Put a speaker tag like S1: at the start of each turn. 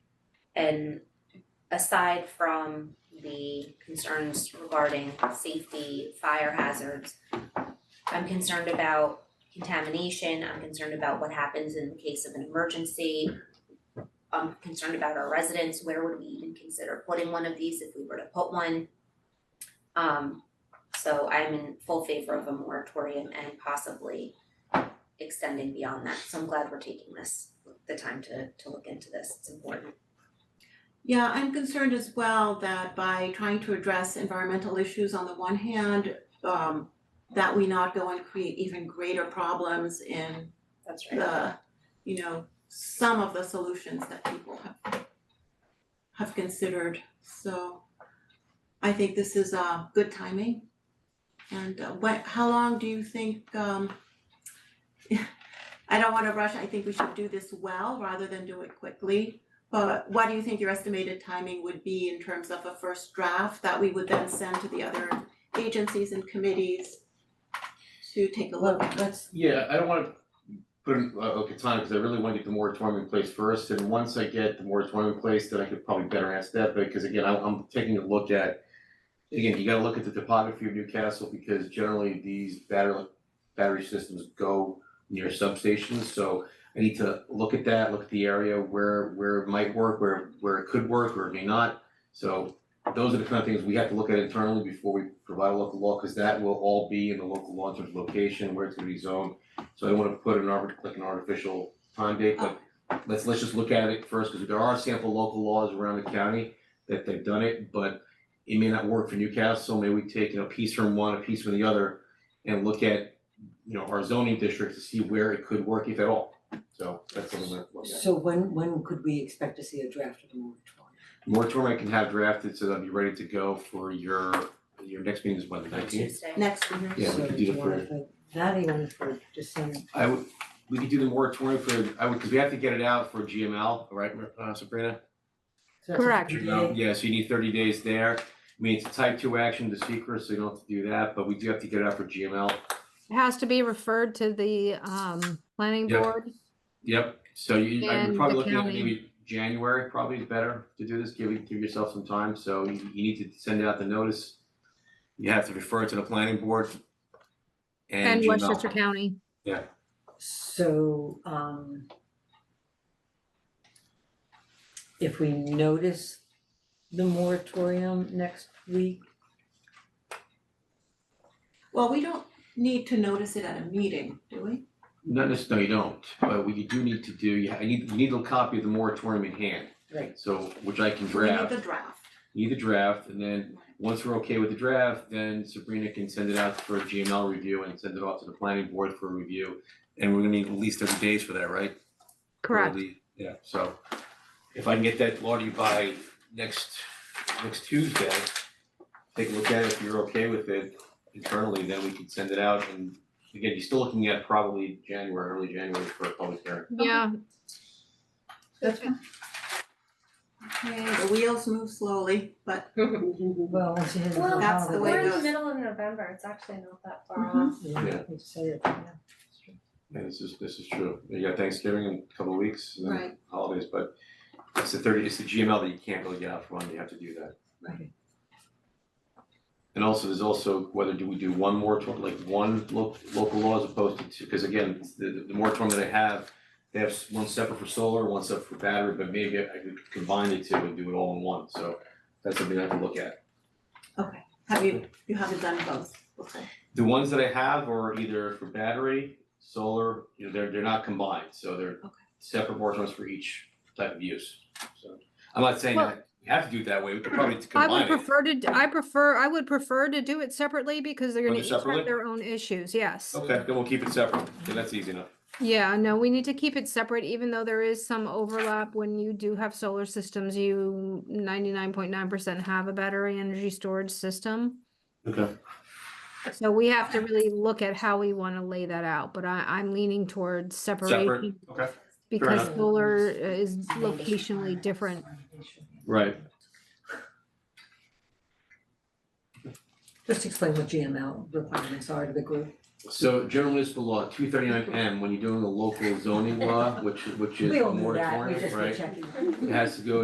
S1: And aside from the concerns regarding safety, fire hazards, I'm concerned about contamination, I'm concerned about what happens in the case of an emergency. I'm concerned about our residents, where would we even consider putting one of these if we were to put one? Um, so I'm in full favor of a moratorium and possibly extending beyond that, so I'm glad we're taking this, the time to to look into this, it's important.
S2: Yeah, I'm concerned as well that by trying to address environmental issues on the one hand, um, that we not go and create even greater problems in
S1: That's
S2: the, you know, some of the solutions that people have have considered, so I think this is uh good timing. And uh, what, how long do you think um I don't wanna rush, I think we should do this well rather than do it quickly. But what do you think your estimated timing would be in terms of a first draft that we would then send to the other agencies and committees to take a
S3: Well,
S2: look at?
S3: that's,
S4: Yeah, I don't wanna put an- a a katana, cause I really wanna get the moratorium in place first, and once I get the moratorium in place, then I could probably better answer that, because again, I'm I'm taking a look at. Again, you gotta look at the topography of Newcastle, because generally these battery battery systems go near substations, so. I need to look at that, look at the area where where it might work, where where it could work, where it may not, so. Those are the kind of things we have to look at internally before we provide a local law, cause that will all be in the local law in terms of location, where it's gonna be zoned. So I don't wanna put an arbit, like an artificial time date, but let's, let's just look at it first, cause there are sample local laws around the county that they've done it, but it may not work for Newcastle, maybe we take, you know, a piece from one, a piece from the other, and look at, you know, our zoning district to see where it could work, if at all. So that's something that, look at.
S3: so when, when could we expect to see a draft of the moratorium?
S4: moratorium I can have drafted, so that'll be ready to go for your, your next meeting is when, the nineteenth?
S1: Tuesday.
S2: Next, mhm.
S4: Yeah, we
S3: So
S4: could do
S3: you
S4: the
S3: wanna
S4: first.
S3: put That even for December,
S4: I would, we could do the moratorium for, I would, cause we have to get it out for GML, right, uh, Sabrina?
S3: so that's
S5: Correct.
S3: today.
S4: Yeah, so you need thirty days there. I mean, it's a type two action to secret, so you don't have to do that, but we do have to get it out for GML.
S5: It has to be referred to the um planning
S4: Yeah.
S5: board.
S4: Yep, so you, I'm
S5: And
S4: probably
S5: the
S4: looking at
S5: county.
S4: maybe January probably is better to do this, give, it- give yourself some time, so you, you need to send out the notice. You have to refer it to the planning board. And
S5: And Westchester
S4: GML.
S5: County.
S3: So, um, if we notice the moratorium next week,
S2: Well, we don't need to notice it at a meeting, do we?
S4: Not necessarily, no, you don't, but what you do need to do, you, ha- you need, you need a copy of the moratorium in hand,
S3: right,
S4: so, which I can
S2: We
S4: draft.
S2: need the draft.
S4: need the draft, and then once we're okay with the draft, then Sabrina can send it out for a GML review and send it off to the planning board for review. And we're gonna need at least thirty days for that, right?
S5: Correct.
S4: Probably, Yeah, so if I can get that law to you by next, next Tuesday, take a look at it, if you're okay with it internally, then we can send it out and again, you're still looking at probably January, early January for a public hearing.
S5: Yeah,
S2: Okay, the wheels move slowly, but
S3: well, once it has the
S6: Well,
S2: That's the way
S6: We're
S2: it
S3: holiday,
S6: in
S2: goes.
S6: the middle of November, it's actually not that far
S2: Mhm.
S6: off.
S3: yeah, we say it, yeah.
S4: Yeah, this is, this is true. You got Thanksgiving in a couple of weeks, and then
S2: Right.
S4: holidays, but it's the thirty, it's the GML that you can't really get out from, you have to do that.
S3: Right.
S4: And also, there's also whether do we do one moratorium, like one lo- local law as opposed to two, because again, it's the the moratorium that I have, they have s- one separate for solar, one separate for battery, but maybe I could combine the two and do it all in one, so that's something I have to look at.
S2: have you, you haven't done both before?
S4: The ones that I have are either for battery, solar, you know, they're they're not combined, so they're
S2: Okay.
S4: separate moratoriums for each type of use, so. I'm not saying
S5: Well-
S4: that you have to do it that way, we could probably
S5: I would
S4: combine it,
S5: prefer to, d- I prefer, I would prefer to do it separately because they're
S4: Oh,
S5: gonna
S4: they're
S5: each have
S4: separately?
S5: their own issues, yes.
S4: okay, then we'll keep it separate, and that's easy enough.
S5: Yeah, no, we need to keep it separate, even though there is some overlap. When you do have solar systems, you ninety-nine point nine percent have a battery energy storage system.
S4: Okay.
S5: So we have to really look at how we wanna lay that out, but I, I'm leaning towards
S4: Separate,
S5: separation
S4: okay,
S5: because
S4: enough.
S5: solar is locationally different.
S4: right,
S3: Just explain what GML requirements are to the group.
S4: so general municipal law, two thirty-nine M, when you're doing a local zoning law, which which is
S3: We
S4: a
S3: all knew that, we
S4: moratorium,
S3: just were
S4: right?
S3: checking.
S4: It has to go